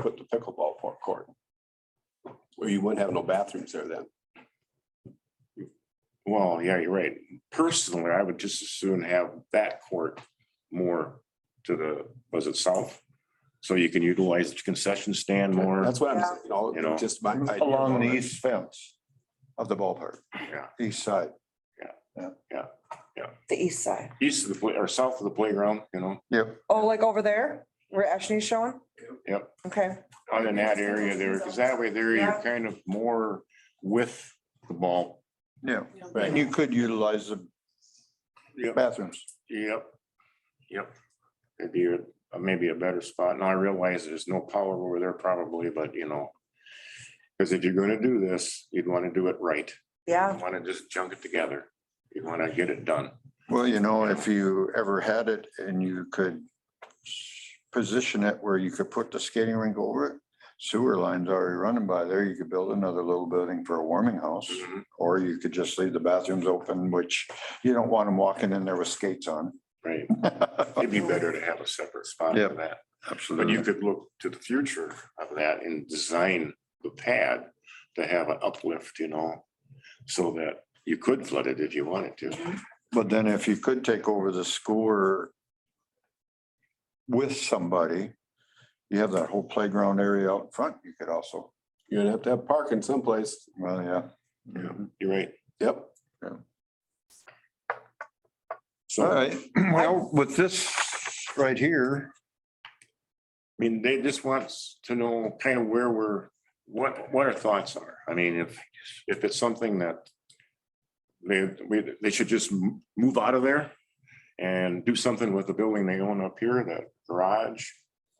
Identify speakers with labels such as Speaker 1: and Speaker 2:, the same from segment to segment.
Speaker 1: put the pickleball por- court. Where you wouldn't have no bathrooms there then.
Speaker 2: Well, yeah, you're right. Personally, I would just as soon have that court more to the, was it south? So you can utilize the concession stand more.
Speaker 1: That's what I'm,
Speaker 3: Yeah.
Speaker 1: saying, you know,
Speaker 2: You know.
Speaker 1: just my. idea.
Speaker 4: Along the east fence of the ballpark,
Speaker 2: Yeah,
Speaker 4: east side.
Speaker 3: the east side.
Speaker 2: east of the, play- or south of the playground, you know,
Speaker 4: Yep.
Speaker 3: Oh, like over there where Ashley's showing?
Speaker 2: Yep.
Speaker 3: Okay,
Speaker 2: out in that area there, because that way there you're kind of more with the ball.
Speaker 4: Yeah, and
Speaker 1: Right.
Speaker 4: you could utilize the
Speaker 2: Yep,
Speaker 4: bathrooms.
Speaker 2: yep, yep. It'd be a- maybe a better spot. Now I realize there's no power over there probably, but you know. Because if you're gonna do this, you'd want to do it right.
Speaker 3: yeah.
Speaker 2: You want to just junk it together. You want to get it done.
Speaker 4: Well, you know, if you ever had it and you could position it where you could put the skating rink over it, sewer lines already running by there, you could build another little building for a warming house. Or you could just leave the bathrooms open, which you don't want them walking in there with skates on.
Speaker 2: Right. It'd be better to have a separate spot
Speaker 4: Yeah.
Speaker 2: for that. But you
Speaker 4: Absolutely.
Speaker 2: could look to the future of that and design the pad to have an uplift, you know, so that you could flood it if you wanted to.
Speaker 4: But then if you could take over the score with somebody, you have that whole playground area out front. You could also,
Speaker 1: You're gonna have to have parking someplace.
Speaker 4: well, yeah.
Speaker 2: You're right.
Speaker 1: Yep.
Speaker 4: All
Speaker 2: So, I
Speaker 4: right, well, with this right here,
Speaker 2: mean, they just want to know kind of where we're, what, what our thoughts are. I mean, if, if it's something that they, we, they should just m- move out of there and do something with the building they own up here, that garage,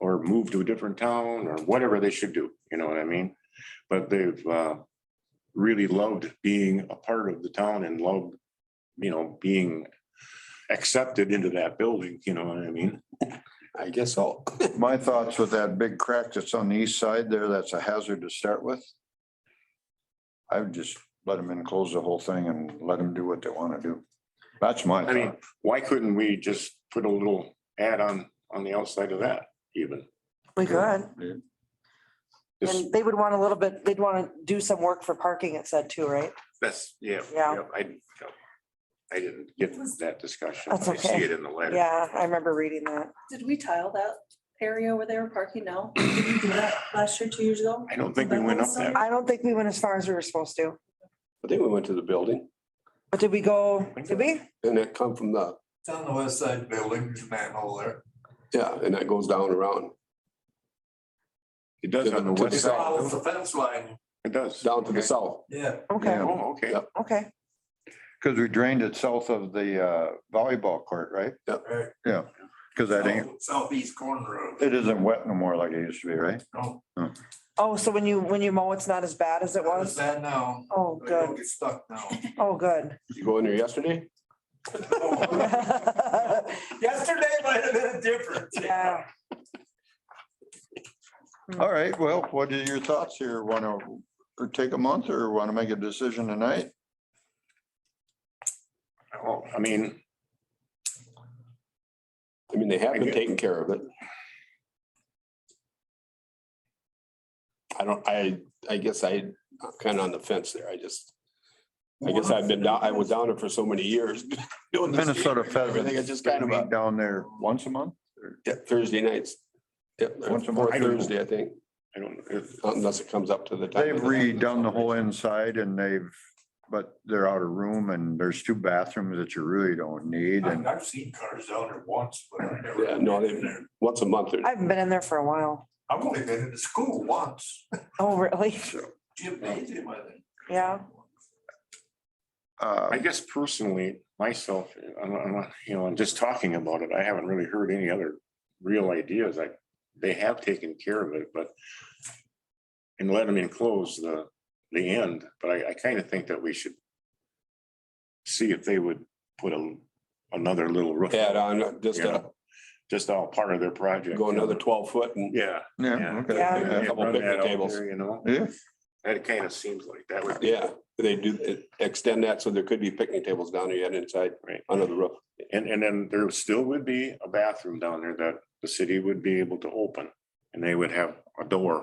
Speaker 2: or move to a different town, or whatever they should do, you know what I mean? But they've uh, really loved being a part of the town and loved, you know, being accepted into that building, you know what I mean?
Speaker 1: I guess so.
Speaker 4: my thoughts with that big crack that's on the east side there, that's a hazard to start with. I would just let them in, close the whole thing and let them do what they want to do. That's my
Speaker 2: I mean,
Speaker 4: thought.
Speaker 2: Uh, why couldn't we just put a little add on, on the outside of that even?
Speaker 3: We could.
Speaker 2: Just,
Speaker 3: And they would want a little bit, they'd want to do some work for parking, it said too, right?
Speaker 2: that's, yeah.
Speaker 3: Yeah.
Speaker 2: I, I didn't get that discussion.
Speaker 3: That's
Speaker 2: I see
Speaker 3: okay.
Speaker 2: it in the letter.
Speaker 3: Yeah, I remember reading that.
Speaker 5: Did we tile that area where they were parking now? Did we do that Last year, two years ago?
Speaker 2: I don't think we went up that.
Speaker 3: I don't think we went as far as we were supposed to.
Speaker 1: I think we went to the building.
Speaker 3: But did we go, did we?
Speaker 1: And that come from the,
Speaker 6: It's on the west side building, there's a manhole there.
Speaker 1: yeah, and that goes down around,
Speaker 2: It does on the
Speaker 1: To the
Speaker 2: west side.
Speaker 1: south.
Speaker 6: Follows the fence line,
Speaker 2: It does.
Speaker 1: down to the
Speaker 4: Okay.
Speaker 1: south.
Speaker 6: Oh. yeah.
Speaker 3: Okay,
Speaker 2: Oh, okay.
Speaker 1: Yep.
Speaker 3: okay.
Speaker 4: Because we drained it south of the uh, volleyball court, right?
Speaker 6: right. Oh,
Speaker 4: Because that ain't,
Speaker 6: Southeast corner of,
Speaker 4: it isn't wet no more like it used to be, right?
Speaker 6: no,
Speaker 3: Oh, so when you, when you mow, it's not as bad as it
Speaker 6: it's
Speaker 3: was?
Speaker 6: that now.
Speaker 3: Oh,
Speaker 6: but I don't
Speaker 3: good.
Speaker 6: get stuck now.
Speaker 3: Oh, good.
Speaker 1: You go in there yesterday?
Speaker 6: Yesterday might have been different.
Speaker 3: Yeah.
Speaker 4: All right, well, what are your thoughts here? Want to take a month or want to make a decision tonight?
Speaker 2: Oh, I mean,
Speaker 1: I mean, they have
Speaker 2: I
Speaker 1: been
Speaker 2: get-
Speaker 1: taking care of it. I don't, I, I guess I, I'm kind of on the fence there. I just, I guess I've been down, I was down there for so many years. doing this
Speaker 4: Minnesota
Speaker 1: game. I think
Speaker 4: Pheasants.
Speaker 1: it's just kind of a
Speaker 4: meet Down there once a month?
Speaker 1: yeah, Thursday nights. Yep,
Speaker 4: Once a
Speaker 1: fourth
Speaker 2: month.
Speaker 1: Thursday, I think,
Speaker 2: I don't, if,
Speaker 1: unless it comes up to the. time
Speaker 4: They've
Speaker 1: of the-
Speaker 4: redone the whole inside and they've, but they're out of room and there's two bathrooms that you really don't need
Speaker 6: I've
Speaker 4: and
Speaker 6: I've seen cars down there once, but I've never.
Speaker 1: Yeah, no,
Speaker 6: been in
Speaker 1: they-
Speaker 6: there.
Speaker 1: Once a month or
Speaker 3: I haven't been in there for a while.
Speaker 6: I've only been in the school once,
Speaker 3: Oh, really?
Speaker 6: gymnasium, I think.
Speaker 3: Yeah.
Speaker 4: uh,
Speaker 2: I guess personally, myself, I'm, I'm, you know, and just talking about it, I haven't really heard any other real ideas. Like, they have taken care of it, but and let them enclose the, the end, but I, I kind of think that we should see if they would put a, another little roof,
Speaker 1: add on, just uh,
Speaker 2: just all part of their project.
Speaker 1: go another twelve foot and
Speaker 2: Yeah.
Speaker 4: yeah, okay.
Speaker 3: Yeah.
Speaker 2: Yeah,
Speaker 4: Yeah.
Speaker 1: Couple
Speaker 2: run
Speaker 1: picnic
Speaker 2: that out
Speaker 1: tables.
Speaker 2: there, You know,
Speaker 4: Yeah,
Speaker 2: that kind of seems like that would. be-
Speaker 1: Yeah, they do extend that, so there could be picnic tables down there yet inside,
Speaker 2: Right.
Speaker 1: under the roof.
Speaker 2: And, and then there still would be a bathroom down there that the city would be able to open And they would have a door